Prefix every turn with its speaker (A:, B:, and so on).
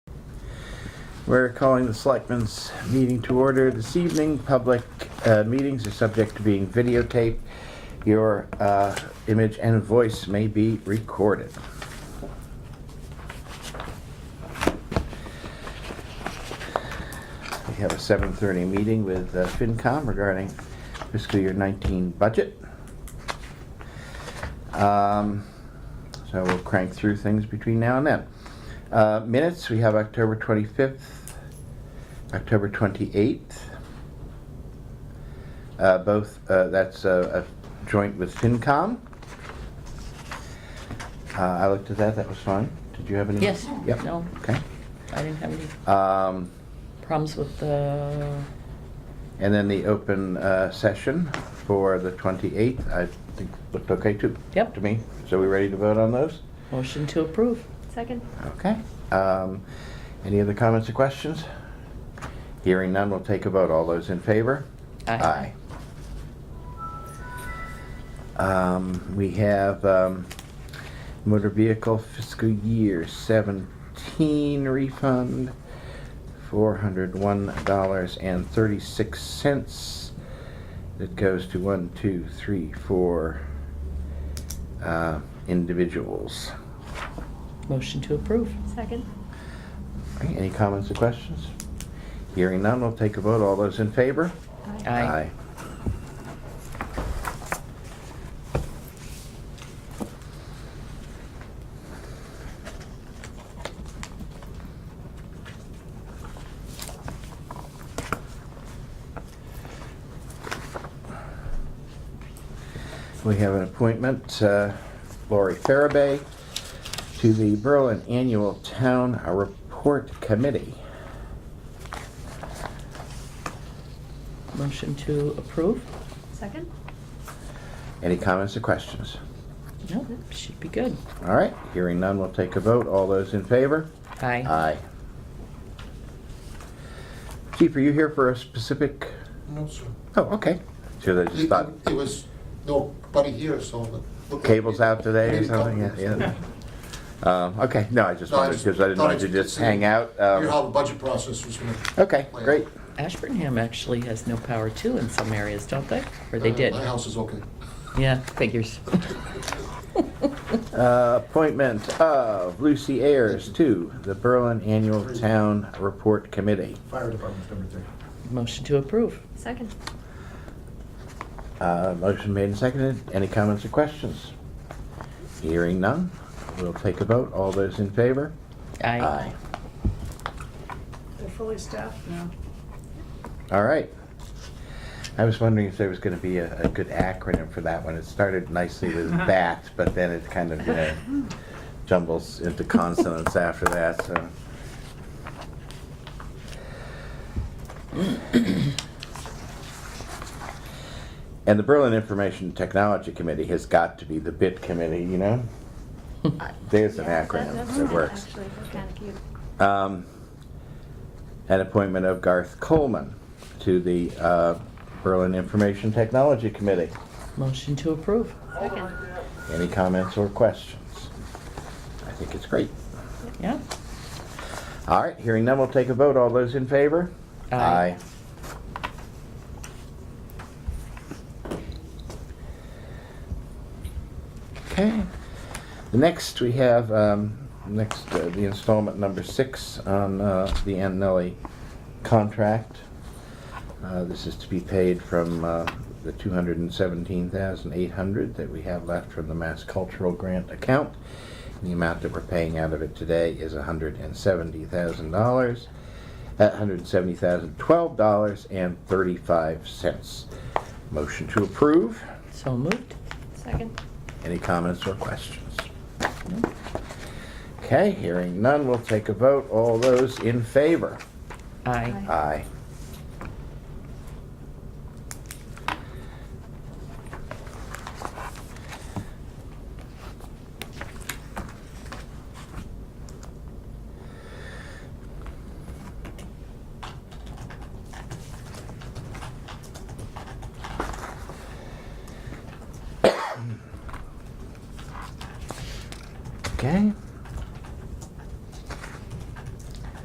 A: We're calling the Selectmen's meeting to order this evening. Public uh, meetings are subject to being videotaped. Your uh, image and voice may be recorded. We have a 7:30 meeting with uh, FinCom regarding fiscal year 19 budget. Um, So we'll crank through things between now and then. Uh, Minutes, we have October 25th, October 28th. Uh, Both, uh, that's uh, a joint with FinCom. Uh, I looked at that, that was fine. Did you have any?
B: Yes.
A: Yep.
B: No.
A: Okay.
B: I didn't have any
A: Um,
B: problems with the,
A: And then the open uh, session for the 28th, I think looked okay too.
B: Yep.
A: To me. So we ready to vote on those?
B: motion to approve.
C: Second.
A: Okay. Um, Any other comments or questions? Hearing none, we'll take a vote. All those in favor? Aye.
B: Aye.
A: Um, We have um, motor vehicle fiscal year 17 refund, $401.36. That goes to one, two, three, four uh, individuals.
B: Motion to approve.
C: Second.
A: All right, Any comments or questions? Hearing none, we'll take a vote. All those in favor?
B: Aye.
A: We have an appointment, uh, Lori Farabee, to the Berlin Annual Town Report Committee.
B: Motion to approve.
C: Second.
A: Any comments or questions?
B: No, should be good.
A: All right, hearing none, we'll take a vote. All those in favor?
B: Aye.
A: Aye. Chief, are you here for a specific,
D: No, sir.
A: oh, okay. Should I just
D: It
A: thought
D: it was nobody here, so. the-
A: cable's out today or
D: Maybe
A: something?
D: couple.
A: Yeah, yeah. Um, Okay, no, I just
D: No, I
A: wanted,
D: just
A: because I didn't
D: thought
A: want you to
D: I'd
A: just
D: see
A: hang out.
D: You know
A: um,
D: how the budget process was gonna.
A: Okay,
D: play out.
A: great.
B: Ashburnham actually has no power too in some areas, don't they? Or they
D: Uh,
B: did?
D: My house is okay.
B: Yeah, figures.
A: Uh, Appointment of Lucy Ayers to the Berlin Annual Town Report Committee.
E: Fire department's number three.
B: Motion to approve.
C: Second.
A: Uh, Motion made and seconded. Any comments or questions? Hearing none, we'll take a vote. All those in favor?
B: Aye.
F: They're fully staffed now.
A: All right. I was wondering if there was going to be a, a good acronym for that one. It started nicely with BAT, but then it kind of, you know, jumbles into consonants after that, so. And the Berlin Information Technology Committee has got to be the BIT committee, you know? There's an acronym that works.
C: Actually, that's kind of cute.
A: Um, An appointment of Garth Coleman to the uh, Berlin Information Technology Committee.
B: Motion to approve.
C: Second.
A: Any comments or questions? I think it's great.
B: Yeah.
A: All right, hearing none, we'll take a vote. All those in favor?
B: Aye.
A: Okay. The Next, we have, um, next, uh, the installment number six on uh, the Ann Nelly contract. Uh, This is to be paid from uh, the 217800 that we have left from the Mass Cultural Grant account. The amount that we're paying out of it today is $170,000, uh, $170,012.35. Motion to approve.
B: So moved.
C: Second.
A: Any comments or questions? Okay, hearing none, we'll take a vote. All those in favor?
B: Aye.
C: Aye.
A: Aye.